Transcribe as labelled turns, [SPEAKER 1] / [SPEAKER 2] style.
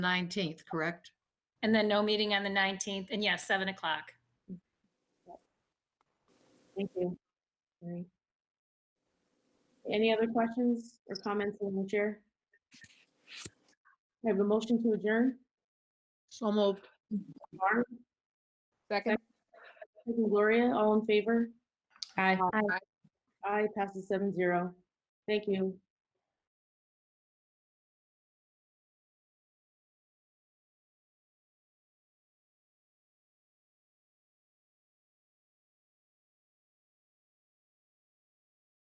[SPEAKER 1] 19th, correct?
[SPEAKER 2] And then no meeting on the 19th, and yes, 7 o'clock.
[SPEAKER 3] Thank you. Mary. Any other questions or comments in the chair? I have a motion to adjourn.
[SPEAKER 1] So moved.
[SPEAKER 3] Barb,
[SPEAKER 4] Second.
[SPEAKER 3] second Gloria, all in favor?
[SPEAKER 4] Aye.
[SPEAKER 3] Aye, passes seven zero. Thank you.